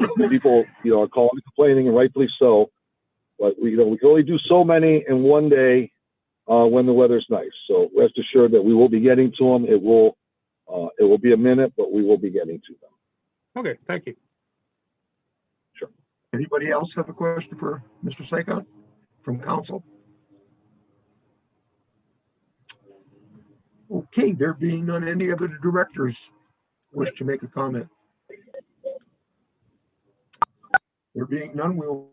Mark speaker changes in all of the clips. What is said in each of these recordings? Speaker 1: and people, you know, are calling and complaining, and rightfully so. But we, you know, we can only do so many in one day uh, when the weather's nice. So rest assured that we will be getting to them. It will, uh, it will be a minute, but we will be getting to them.
Speaker 2: Okay, thank you.
Speaker 3: Anybody else have a question for Mr. Sakon from council? Okay, there being none, any other directors wish to make a comment? There being none, we'll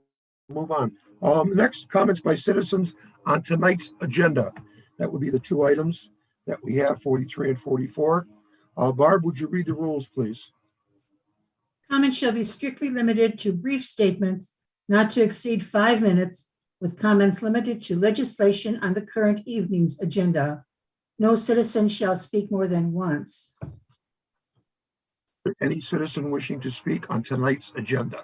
Speaker 3: move on. Um, next, comments by citizens on tonight's agenda. That would be the two items that we have, 43 and 44. Uh, Barb, would you read the rules, please?
Speaker 4: Comments shall be strictly limited to brief statements not to exceed five minutes, with comments limited to legislation on the current evening's agenda. No citizen shall speak more than once.
Speaker 3: Any citizen wishing to speak on tonight's agenda?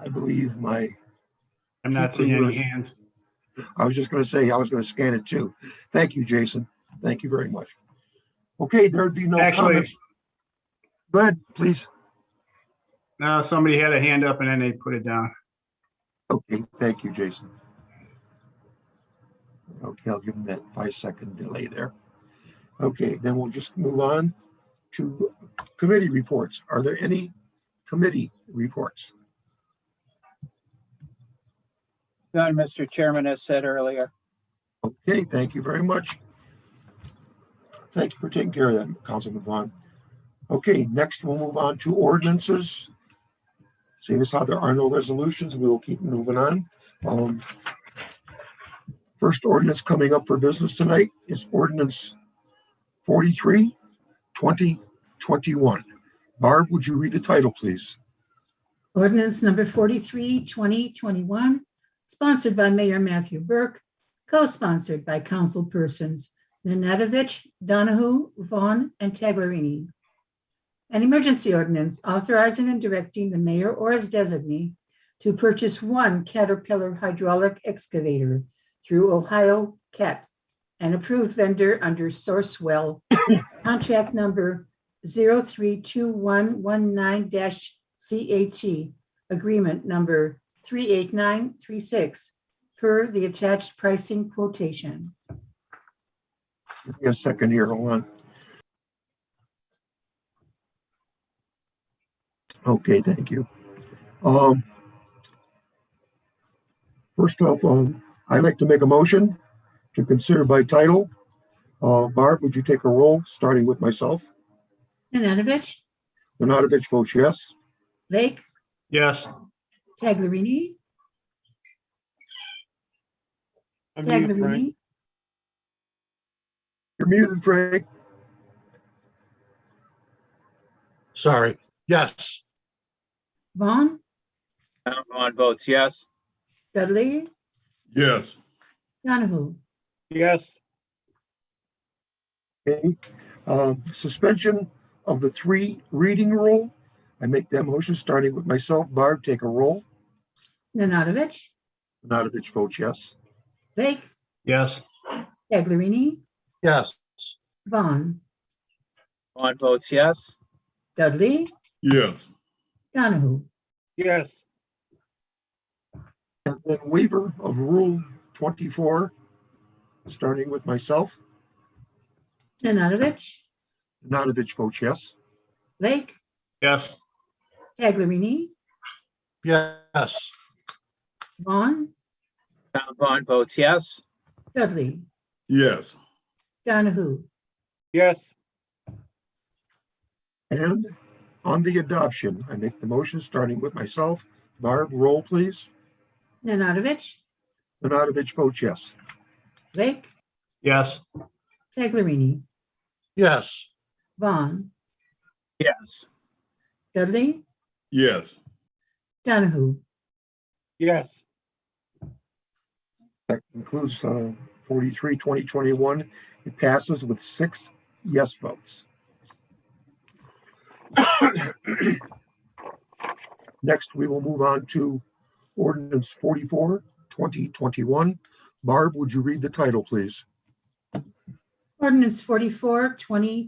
Speaker 3: I believe my,
Speaker 5: I'm not
Speaker 3: People
Speaker 5: seeing
Speaker 3: who
Speaker 5: any hands.
Speaker 3: I was just gonna say, I was gonna scan it too. Thank you, Jason. Thank you very much. Okay, there'd be no
Speaker 5: Actually-
Speaker 3: comments. Go ahead, please.
Speaker 5: No, somebody had a hand up and then they put it down.
Speaker 3: Okay, thank you, Jason. Okay, I'll give him that five second delay there. Okay, then we'll just move on to committee reports. Are there any committee reports?
Speaker 6: None, Mr. Chairman, as said earlier.
Speaker 3: Okay, thank you very much. Thank you for taking care of that, Councilman Vaughn. Okay, next we'll move on to ordinances. Seeing as how there are no resolutions, we will keep moving on. Um, First ordinance coming up for business tonight is ordinance 43, 2021. Barb, would you read the title, please?
Speaker 4: Ordinance number 43, 2021, sponsored by Mayor Matthew Burke, co-sponsored by councilpersons Nanadovich, Donahue, Vaughn, and Taglerini. An emergency ordinance authorizing and directing the mayor or his designee to purchase one Caterpillar hydraulic excavator through Ohio CAT, an approved vendor under Sourcewell, contract number 032119-CAT, agreement number 38936, per the attached pricing quotation.
Speaker 3: Give me a second here, hold on. Okay, thank you. Um, first off, um, I'd like to make a motion to consider by title. Uh, Barb, would you take a roll, starting with myself?
Speaker 4: Nanadovich,
Speaker 3: Nanadovich votes yes.
Speaker 4: Lake,
Speaker 5: Yes.
Speaker 4: Taglerini,
Speaker 2: I'm muted, Frank.
Speaker 4: Taglerini,
Speaker 3: You're muted, Frank.
Speaker 7: Sorry, yes,
Speaker 4: Vaughn,
Speaker 8: Count Vaughn votes yes.
Speaker 4: Dudley,
Speaker 7: yes,
Speaker 4: Donahue.
Speaker 2: Yes,
Speaker 3: Okay, um, suspension of the three reading rule. I make that motion, starting with myself. Barb, take a roll.
Speaker 4: Nanadovich,
Speaker 3: Nanadovich votes yes.
Speaker 4: Lake,
Speaker 5: Yes.
Speaker 4: Taglerini,
Speaker 7: yes,
Speaker 4: Vaughn,
Speaker 8: Vaughn votes yes.
Speaker 4: Dudley,
Speaker 7: yes,
Speaker 4: Donahue.
Speaker 2: yes,
Speaker 3: And then waiver of Rule 24, starting with myself.
Speaker 4: Nanadovich,
Speaker 3: Nanadovich votes yes.
Speaker 4: Lake,
Speaker 5: Yes.
Speaker 4: Taglerini,
Speaker 7: yes,
Speaker 4: Vaughn,
Speaker 8: Count Vaughn votes yes.
Speaker 4: Dudley,
Speaker 7: yes,
Speaker 4: Donahue.
Speaker 2: yes,
Speaker 3: And on the adoption, I make the motion, starting with myself. Barb, roll, please.
Speaker 4: Nanadovich,
Speaker 3: Nanadovich votes yes.
Speaker 4: Lake,
Speaker 5: Yes.
Speaker 4: Taglerini,
Speaker 7: yes,
Speaker 4: Vaughn,
Speaker 8: Yes.
Speaker 4: Dudley,
Speaker 7: yes,
Speaker 4: Donahue.
Speaker 2: yes.
Speaker 3: That concludes uh, 43, 2021. It passes with six yes votes. Next, we will move on to ordinance 44, 2021. Barb, would you read the title, please?
Speaker 4: Ordinance 44, 2021,